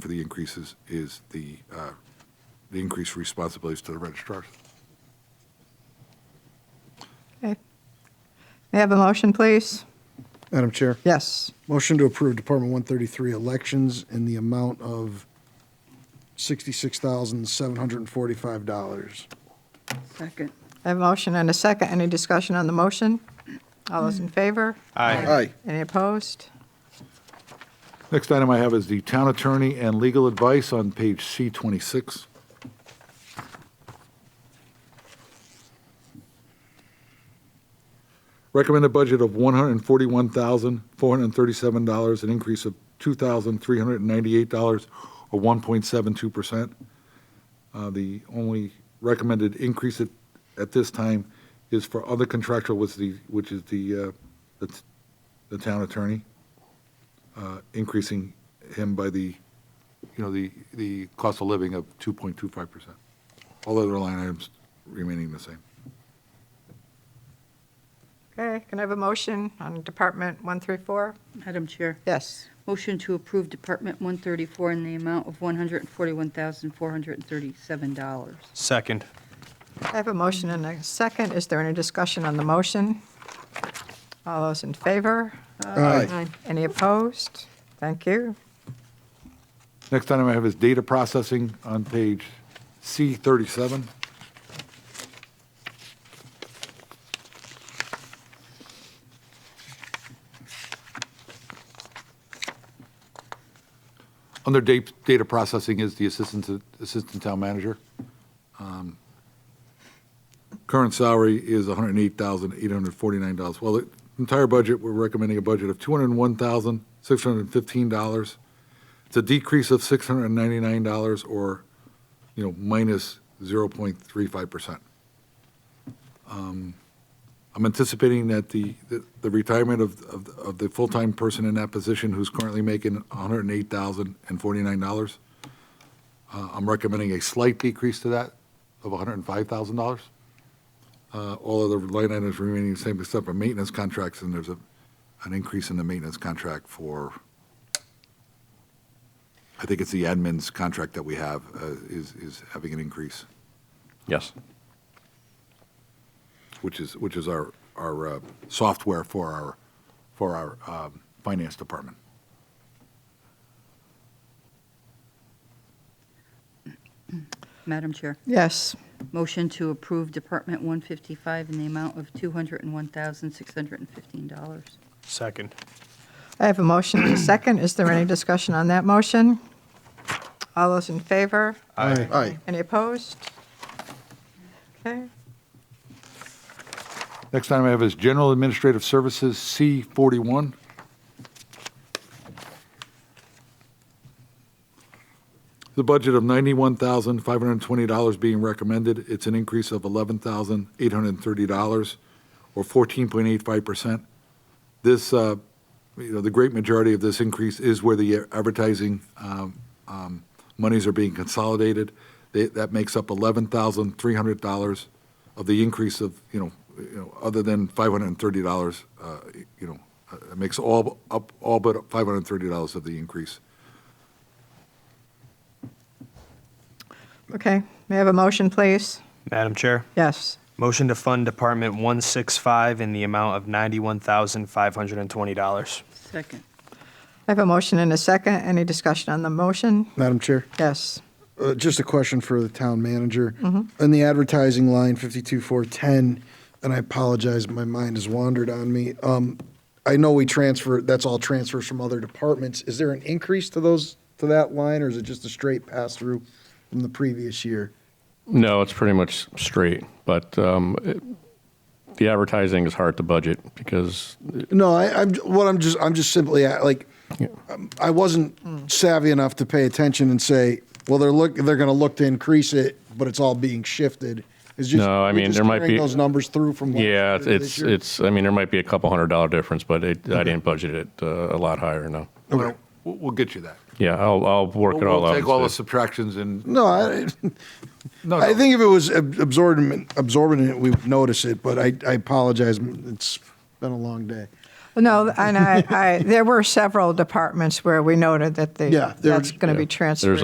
for the increases is the, uh, the increased responsibilities to the registrars. Okay. May I have a motion, please? Madam Chair, Yes. motion to approve Department 133 elections in the amount of $66,745. Second. I have a motion and a second. Any discussion on the motion? All those in favor? Aye. Any opposed? Next item I have is the town attorney and legal advice on page C twenty-six. Recommended budget of one hundred and forty-one thousand, four hundred and thirty-seven dollars, an increase of two thousand, three hundred and ninety-eight dollars, or one point seven two percent. Uh, the only recommended increase at, at this time is for other contractual, was the, which is the, uh, the t- the town attorney uh, increasing him by the, you know, the, the cost of living of 2.25%. All other line items remaining the same. Okay, can I have a motion on Department 134? Madam Chair, Yes. motion to approve Department 134 in the amount of $141,437. Second. I have a motion and a second. Is there any discussion on the motion? All those in favor? Aye. Any opposed? Thank you. Next item I have is data processing on page C37. Under da- data processing is the assistant, to- assistant town manager. Um, Current salary is $108,849. Well, the entire budget, we're recommending a budget of $201,615. It's a decrease of $699 or, you know, minus 0.35%. Um, I'm anticipating that the, the- the retirement of, of, of the full-time person in that position who's currently making $108,049, uh, I'm recommending a slight decrease to that of $105,000. Uh, All other line items remaining the same except for maintenance contracts, and there's a, an increase in the maintenance contract for I think it's the admin's contract that we have uh, is, is having an increase, Yes. which is, which is our, our uh, software for our, for our um, finance department. Madam Chair, Yes. motion to approve Department 155 in the amount of $201,615. Second. I have a motion and a second. Is there any discussion on that motion? All those in favor? Aye. Aye. Any opposed? Okay, Next item I have is general administrative services, C41. The budget of $91,520 being recommended, it's an increase of $11,830, or 14.85%. This, uh, you know, the great majority of this increase is where the advertising um, um, monies are being consolidated. They- That makes up $11,300 of the increase of, you know, you know, other than $530, uh, you know, uh, it makes all, up, all but $530 of the increase. okay. May I have a motion, please? Madam Chair, Yes. motion to fund Department 165 in the amount of $91,520. Second. I have a motion and a second. Any discussion on the motion? Madam Chair, Yes. uh, just a question for the town manager. In the advertising line, 52410, and I apologize, my mind has wandered on me. Um, I know we transfer, that's all transfers from other departments. Is there an increase to those, to that line, or is it just a straight pass-through from the previous year? No, it's pretty much straight, but um, it- the advertising is hard to budget because No, I, I'm what I'm just I'm just simply uh, like um, I wasn't savvy enough to pay attention and say, well, they're look they're going to look to increase it, but it's all being shifted. It's just No, I we're mean, just there might carrying be- those numbers through from last yeah, year it's to this it's, year. it's. I mean, there might be a couple hundred dollar difference, but it, I didn't budget it uh, a lot higher. No. We'll, we'll get you that. Yeah, I'll I'll work it all We'll out. take all the instead. subtractions and, no. I, no, I no. think if it was ab- absorbent absorbent, we would notice it. But I I apologize. It's been a long day. No, and I, I, there were several departments where we noted that the, Yeah, there- that's going to Yeah. be transferred. There's